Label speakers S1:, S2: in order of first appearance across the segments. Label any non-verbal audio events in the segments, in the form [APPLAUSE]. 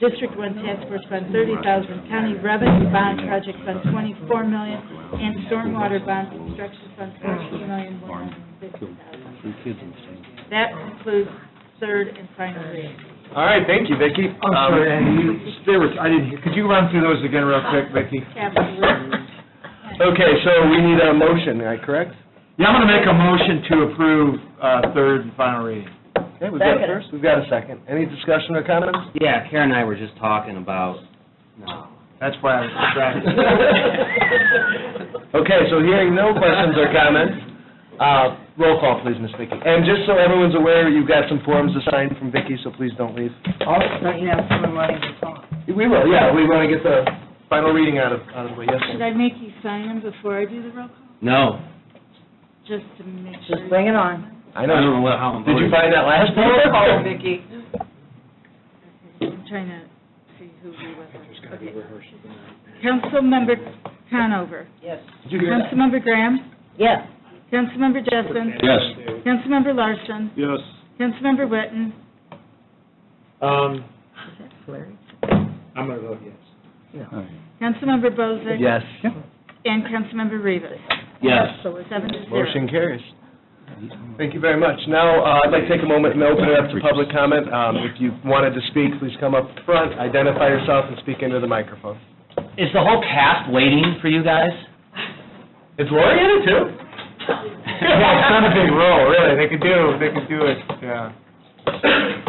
S1: District One Task Force Fund thirty thousand, County Revenue Bond Project Fund twenty-four million, and Stormwater Bond Construction Fund fourteen million, one hundred and fifty thousand.
S2: Three kids in the same.
S1: That concludes third and final reading.
S3: All right, thank you, Vicki. Um,
S4: I'm sorry, Andy, you- there was, I didn't hear, could you run through those again real quick, Vicki?
S1: Absolutely.
S3: Okay, so we need a motion, am I correct?
S4: Yeah, I'm going to make a motion to approve uh, third and final reading.
S3: Okay, we've got a
S5: Second.
S3: first, we've got a second. Any discussion or comments?
S2: Yeah, Karen and I were just talking about, no.
S4: That's why I was distracted.
S3: [LAUGHS] Okay, so hearing no questions or comments, uh, roll call, please, Miss Vicki. And just so everyone's aware, you've got some forms to sign from Vicki, so please don't leave.
S5: Also, you have someone wanting to talk.
S3: We will, yeah, we want to get the final reading out of, out of the way, yes.
S1: Should
S3: ma'am.
S1: I make you sign them before I do the roll call?
S2: No.
S1: Just to make sure.
S5: Just bring it on.
S3: I know,
S2: know what- how I'm
S3: did you
S2: voting.
S3: find that last one?
S5: Roll call, Oh, Vicki.
S1: I'm trying to see who we were. Okay. Councilmember Conover.
S5: Yes.
S3: Did you hear that?
S1: Councilmember Graham.
S5: Yes.
S1: Councilmember Jessen.
S2: Yes.
S1: Councilmember Larson. Yes. Councilmember Witten.
S4: Um,
S5: Is that Larry?
S4: I'm going to vote yes.
S1: Councilmember Bozick.
S3: Yes.
S1: And Councilmember Rivas.
S2: Yes.
S5: So it's
S1: Seven to zero.
S3: Motion carries. Thank you very much. Now, uh, I'd like to take a moment and open it up to public comment. Um, If you wanted to speak, please come up front, identify yourself, and speak into the microphone.
S2: Is the whole cast waiting for you guys?
S3: Is Lori in it too?
S4: Yeah, it's not a big role, really, they could do, they could do it, yeah.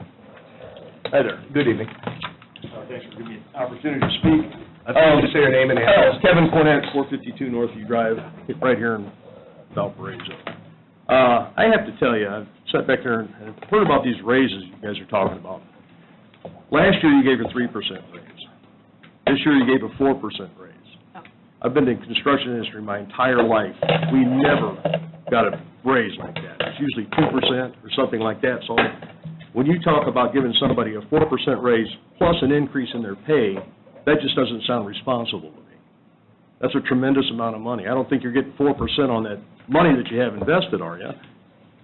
S3: Hi there. Good evening.
S6: Uh, Thanks for giving me an opportunity to speak.
S3: I'd like you to say your name and address.
S6: Oh, Kevin Cornett, 452 Northview Drive, right here in Valparaiso. Uh, I have to tell you, I've sat back there and I've heard about these raises you guys are talking about. Last year, you gave a 3% raise. This year, you gave a 4% raise. I've been in the construction industry my entire life. We never got a raise like that. It's usually 2% or something like that. So when you talk about giving somebody a 4% raise plus an increase in their pay, that just doesn't sound responsible to me. That's a tremendous amount of money. I don't think you're getting four percent on that money that you have invested, are you?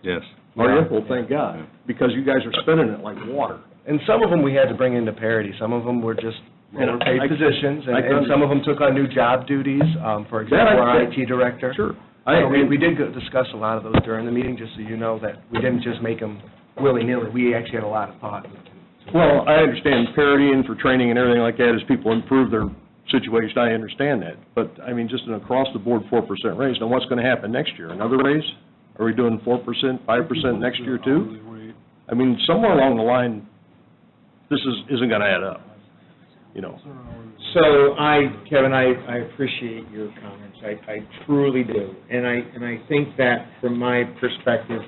S7: Yes.
S6: Are you? Well, thank God, because you guys are spending it like water.
S3: And some of them we had to bring into parity. Some of them were just
S6: You know,
S3: lower-paid
S6: I-
S3: positions, and
S6: I
S3: and some of them took on new job duties, um, for
S6: That I
S3: example, our
S6: think-
S3: IT director.
S6: Sure. I,
S3: So We we did go- discuss a lot of those during the meeting, just so you know that we didn't just make them willy-nilly. We actually had a lot of thought.
S6: well, I understand parity and for training and everything like that, as people improve their situation, I understand that. But, I mean, just an across-the-board four percent raise. Now, what's gonna happen next year? Another raise? Are we doing four percent, five percent next year too? I mean, somewhere along the line, this is, isn't gonna add up, you know?
S4: So I, Kevin, I, I appreciate your comments, I, I truly do. And I, and I think that from my perspective,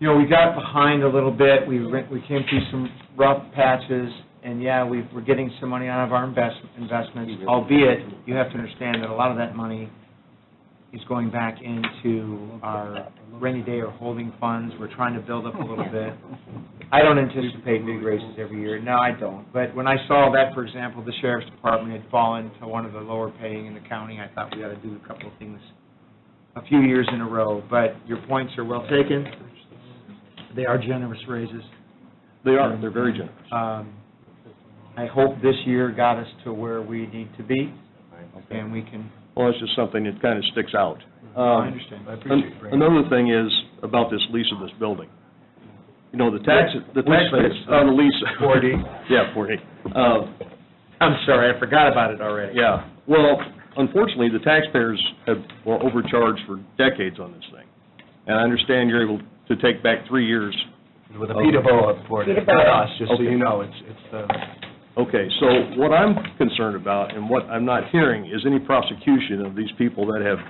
S4: you know, we got behind a little bit, we, re- we came through some rough patches, and yeah, we, we're getting some money out of our invest, investments, albeit, you have to understand that a lot of that money is going back into our rainy day or holding funds, we're trying to build up a little bit. I don't anticipate big raises every year, no, I don't, but when I saw that, for example, the sheriff's department had fallen to one of the lower paying in the county, I thought we ought to do a couple of things a few years in a row, but your points are well taken, they are generous raises.
S6: They are, they're very generous.
S4: Um, I hope this year got us to where we need to be, and we can,
S6: Well, it's just something that kind of sticks out. Um,
S4: I understand.
S3: I appreciate
S6: An-
S3: you bringing
S6: Another thing is about this lease of this building. You know, the tax, the
S3: Which
S6: tax
S3: lease?
S6: on the
S4: [LAUGHS]
S6: lease.
S3: 4D.
S6: Yeah, 4D. Uh,
S4: Oh. I'm sorry, I forgot about it already.
S6: Yeah, well, unfortunately, the taxpayers have, were overcharged for decades on this thing. And I understand you're able to take back three years.
S3: With a Peterbilt board, it's not us, just so
S6: Okay.
S3: you know, it's, it's the,
S6: Okay, so what I'm concerned about and what I'm not hearing is any prosecution of these people that have,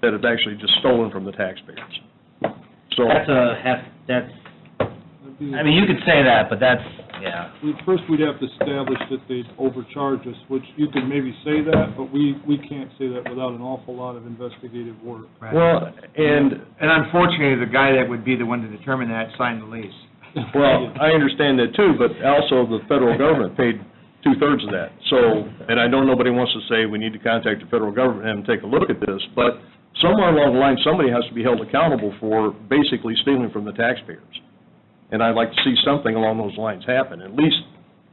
S6: that have actually just stolen from the taxpayers. So.
S2: That's a, hef- that's, I mean, you could say that, but that's, yeah.
S8: we- First, we'd have to establish that they'd overcharge us, which you could maybe say that, but we, we can't say that without an awful lot of investigative work.
S4: Right.
S6: Well, and,
S4: And unfortunately, the guy that would be the one to determine that signed the lease.
S6: well, I understand that too, but also the federal government paid two-thirds of that. So, and I know nobody wants to say we need to contact the federal government and take a look at this, but somewhere along the line, somebody has to be held accountable for basically stealing from the taxpayers. And I'd like to see something along those lines happen, at least